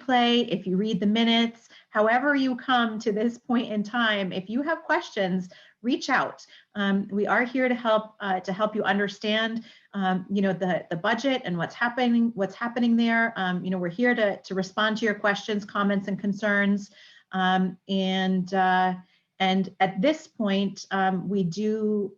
replay, if you read the minutes, however you come to this point in time, if you have questions, reach out. Um, we are here to help, uh, to help you understand, um, you know, the, the budget and what's happening, what's happening there. Um, you know, we're here to, to respond to your questions, comments and concerns. Um, and, uh, and at this point, um, we do,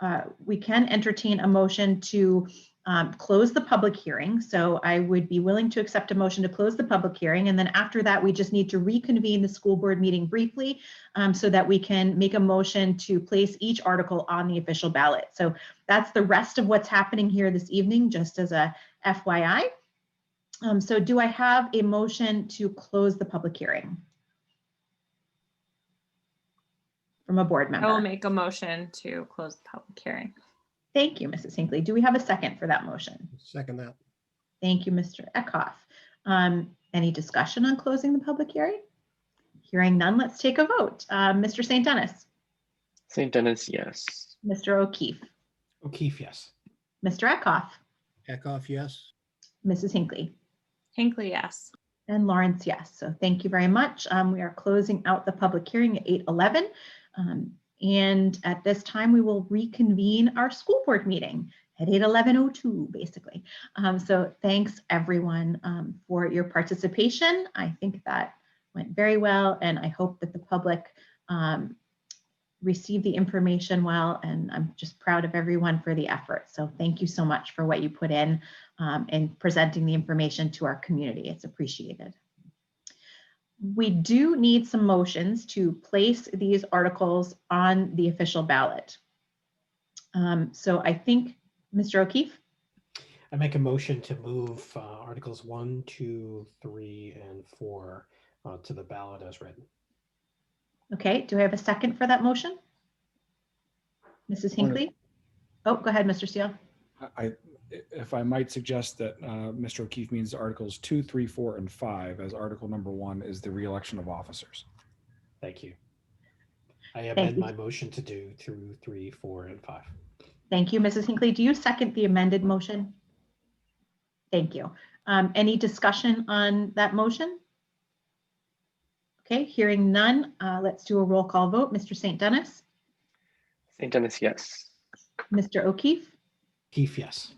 uh, we can entertain a motion to um, close the public hearing. So I would be willing to accept a motion to close the public hearing. And then after that, we just need to reconvene the school board meeting briefly um, so that we can make a motion to place each article on the official ballot. So that's the rest of what's happening here this evening, just as a FYI. Um, So do I have a motion to close the public hearing? From a board member? I will make a motion to close the public hearing. Thank you, Mrs. Hinckley. Do we have a second for that motion? Second that. Thank you, Mr. Eckhoff. Um, Any discussion on closing the public hearing? Hearing none, let's take a vote. Uh, Mr. St. Dennis, St. Dennis, yes. Mr. O'Keefe, O'Keefe, yes. Mr. Eckhoff, Eckhoff, yes. Mrs. Hinckley, Hinckley, yes. and Lawrence, yes. So thank you very much. Um, We are closing out the public hearing at 8:11. Um, And at this time, we will reconvene our school board meeting at 8:11:02, basically. Um, So thanks, everyone, um, for your participation. I think that went very well, and I hope that the public um, received the information well, and I'm just proud of everyone for the effort. So thank you so much for what you put in um, and presenting the information to our community. It's appreciated. We do need some motions to place these articles on the official ballot. Um, So I think, Mr. O'Keefe, I make a motion to move uh, Articles 1, 2, 3, and 4 uh, to the ballot as written. okay, do I have a second for that motion? Mrs. Point of- Hinckley? Oh, go ahead, Mr. Steele. I, if I might suggest that uh, Mr. O'Keefe means Articles two, three, four, and 5, as Article number 1 is the reelection of officers. Thank you. I amend you. my motion to do 2, 3, 4, and 5. Thank you, Mrs. Hinckley. Do you second the amended motion? Thank you. Um, Any discussion on that motion? Okay, hearing none, uh, let's do a roll call vote. Mr. St. Dennis, St. Dennis, yes. Mr. O'Keefe, Keefe, yes.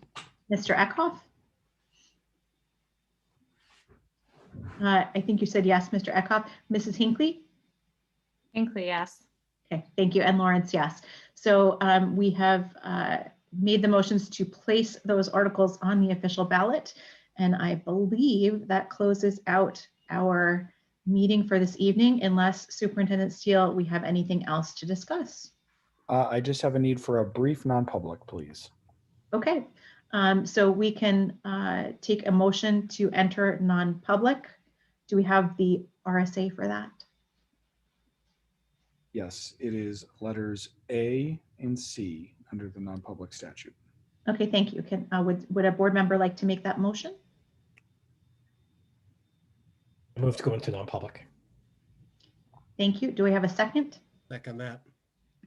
Mr. Eckhoff? Uh, I think you said yes, Mr. Eckhoff. Mrs. Hinckley? Hinckley, yes. Okay, thank you. And Lawrence, yes. So um, we have uh, made the motions to place those articles on the official ballot. And I believe that closes out our meeting for this evening unless Superintendent Steele, we have anything else to discuss. Uh, I just have a need for a brief non-public, please. Okay, um, so we can uh, take a motion to enter non-public. Do we have the RSA for that? Yes, it is letters A and C under the non-public statute. Okay, thank you. Can, uh, would, would a board member like to make that motion? I Move to go into non-public. Thank you. Do we have a second? Second that.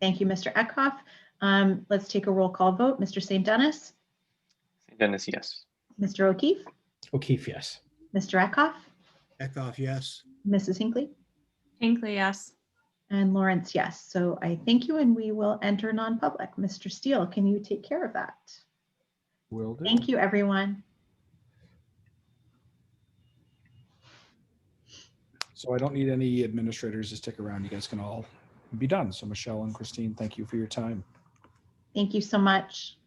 Thank you, Mr. Eckhoff. Um, Let's take a roll call vote. Mr. St. Dennis, St. Dennis, yes. Mr. O'Keefe, O'Keefe, Oh, yes. Mr. Eckhoff, Eckhoff, yes. Mrs. Hinckley, Hinckley, yes. and Lawrence, yes. So I thank you, and we will enter non-public. Mr. Steele, can you take care of that? Will do. Thank you, everyone. So I don't need any administrators to stick around. You guys can all be done. So Michelle and Christine, thank you for your time. Thank you so much.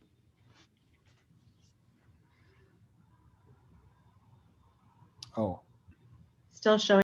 Oh, Oh, Still showing